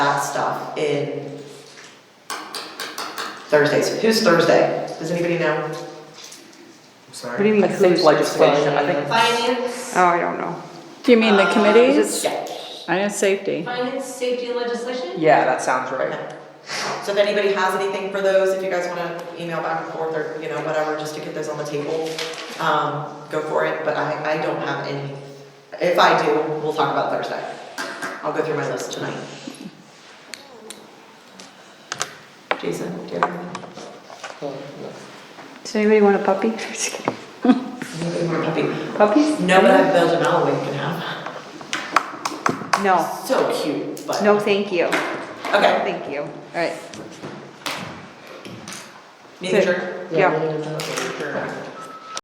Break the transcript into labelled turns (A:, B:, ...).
A: that stuff in Thursdays. Who's Thursday? Does anybody know?
B: I'm sorry.
C: What do you mean,
D: I think
C: who's
D: legislation, I think,
E: Finance,
C: Oh, I don't know.
F: Do you mean the
E: Uh,
F: committees?
A: Yeah.
F: I know safety.
E: finance, safety, and legislation?
D: yeah, that sounds right.
A: So if anybody has anything for those, if you guys wanna email back and forth or, you know, whatever, just to get those on the table, um, go for it, but I, I don't have any. If I do, we'll talk about Thursday. I'll go through my list tonight. Jason, do you have anything?
C: Does anybody want a puppy? Just kidding.
A: Anybody want a puppy?
C: Puppies?
A: No, but I've built an alleyway we can have.
C: No,
A: So cute, but.
C: no, thank you. No,
A: Okay,
C: thank you. All right.
A: nature.
C: Yeah.
B: Sure.